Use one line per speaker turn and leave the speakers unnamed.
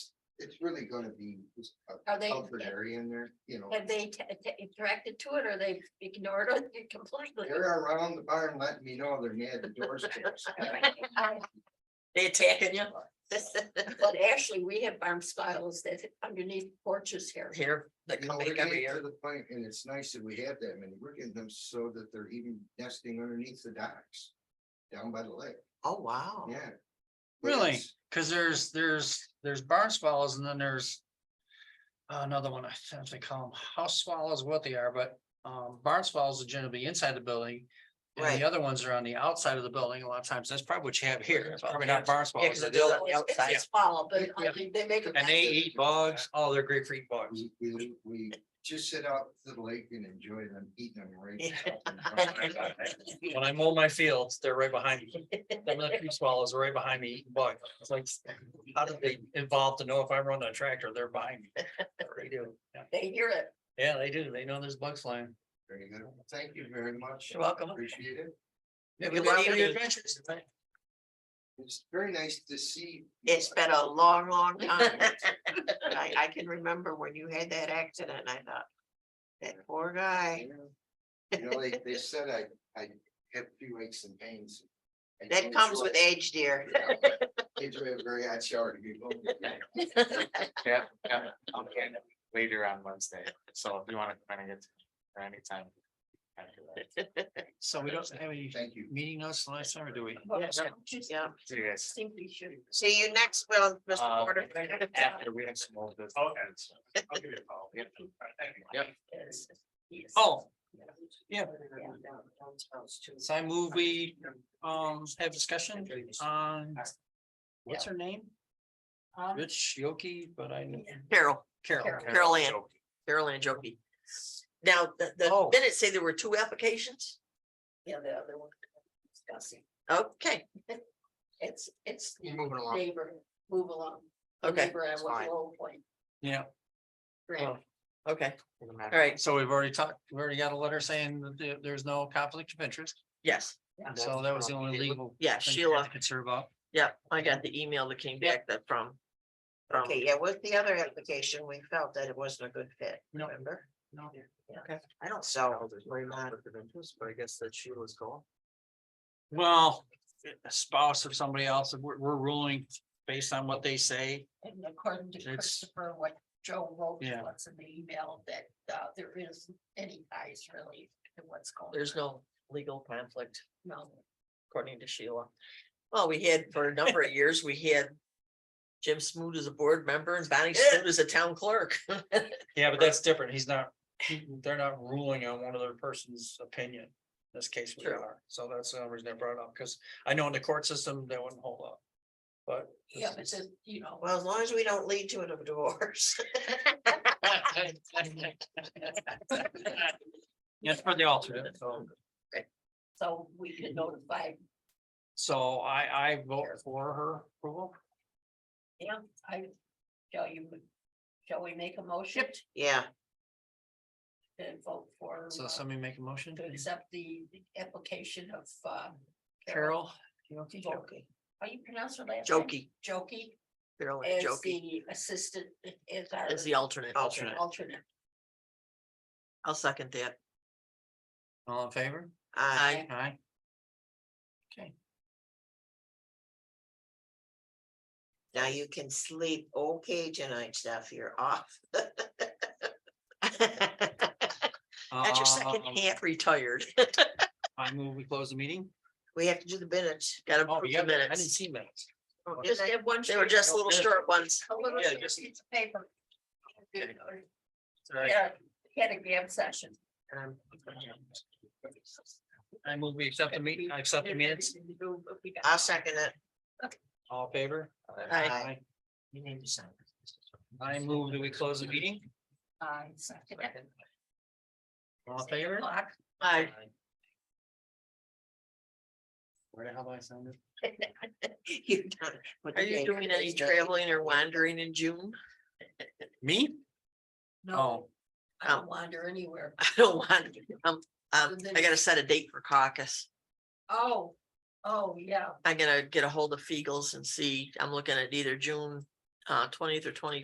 it's really gonna be just
Are
a
they,
comfort area in there, you know.
have they t- t- interacted to it or they ignored it completely?
They're around the barn letting me know they're near the doorsteps.
They attacking you
Um, But actually, we have barn spiles that underneath porches here.
here, that
You
come
know, we're
back every
getting to
year.
the point, and it's nice that we have them, and we're getting them so that they're even nesting underneath the docks. Down by the lake,
Oh, wow.
yeah.
Really?
Yes.
Cause there's, there's, there's barn swallows and then there's. uh, Another one, I think they call them house swallows, what they are, but um barn swallows are generally inside the building. And
Right.
the other ones are on the outside of the building. A lot of times, that's probably what you have here. It's probably not barn
Yeah, 'cause
swallows.
they're
They're-
just on the
It's- it's a
outside.
Swallow, but
Yeah.
I think they make. a
And they
mess.
eat bugs. Oh, they're great for eating bugs.
We, we, we just sit out to the lake and enjoy them, eating them right.
Yeah.
now.
When I mow my fields, they're right behind me. Them little tree swallows are right behind me eating bugs. It's like, how did they evolve to know if I run a tractor, they're behind me? They do. Yeah.
They hear it.
Yeah, they do. They know there's bugs flying.
Very good. Thank you very much.
You're welcome.
Appreciate it.
Yeah,
Good
good luck
luck.
with your adventures.
It's very nice to see.
It's been a long, long time. I, I can remember when you had that accident, I thought, that poor guy,
You know, they, they said I, I have few aches and pains. I
that
told
comes
you,
with age, dear.
yeah, Kids were very hot shower to be. going.
Yeah, yeah, I'll be in later on Wednesday, so if you wanna kind of get to or anytime. after that.
So we don't have any
Thank you.
meeting notes last time, or do we?
Yes, Yeah,
See you guys.
Think we should.
see you next, well, Mr.
Uh,
Porter.
After we have some more business. Okay. I'll give you a call. Yep. Yep.
Oh, yeah. So I move we um have discussion on. What's her name?
Um,
Rich Yoki, but I knew
Carol,
Carol.
Carol Ann, Carol Ann Jokey. Now, the, the
Oh.
minutes say there were two applications,
Yeah, the other one. Discussing.
okay,
It's, it's the
Moving along.
neighbor, move along. The
okay,
neighbor I
it's
was
fine.
low point.
Yeah,
Great.
okay, all right,
so we've already talked, we already got a letter saying that there- there's no conflict of interest.
yes,
and So that was the only legal.
yeah,
thing we had
Sheila.
to Concern about.
Yeah, I got the email that came back that from. Okay, yeah, with the other application, we felt that it wasn't a good fit,
No.
remember?
No.
Okay. I don't sell.
But I guess that she was gone.
Well, a spouse of somebody else, we're we're ruling based on what they say.
And according to
It's-
Christopher, what Joe wrote
Yeah.
once in the email that uh there isn't any ties really to what's going.
There's
on.
no legal conflict
No.
according to Sheila. Well, we had for a number of years, we had. Jim Smoot as a board member and Bonnie Smoot as a town clerk.
Yeah, but that's different. He's not, he- they're not ruling on one other person's opinion. In This case, we
True.
are. So that's the only reason I brought it up, because I know in the court system, that wouldn't hold up. But.
Yeah, but then, you know.
Well, as long as we don't lead to a divorce.
Yes, for the alternate, so,
So we
Mhm.
can notify,
so I, I vote for her approval.
yeah, I, shall you, shall we make a motion
Yeah,
and vote for?
So
uh,
somebody make a motion,
To accept the application of uh.
Carol?
Jokey. How you pronounce her last? name?
jokey,
Jokey
Carol
as
jokey
the assistant, as our.
is the alternate.
alternate. Alternate.
I'll second that.
All in favor?
I,
Aye.
Aye. Okay,
now you can sleep okay tonight, Steph, you're off. That's your second
Um,
half retired.
I move we close the meeting.
We have to do the minutes, gotta
Oh,
approve
yeah,
the
I didn't
minutes.
see minutes.
Oh, did
Just
I?
have one.
They were just little
minutes.
short ones.
A little
Yeah, just-
piece of paper. Yeah,
Sorry.
had a grab session.
Um,
I move we accept the meeting, I accept the minutes,
I'll second it.
all in favor?
Aye.
You need to sign. I move that we close the meeting,
Uh, second.
all in favor?
Clock.
Aye.
Where the hell do I sign this?
You done- Are you doing any traveling or wandering in June?
Me?
No, I
Oh.
don't wander anywhere.
I don't want, to. um, um,
And then-
I gotta set a date for caucus.
Oh, oh, yeah.
I'm gonna get a hold of Fegels and see, I'm looking at either June uh twentieth or twenty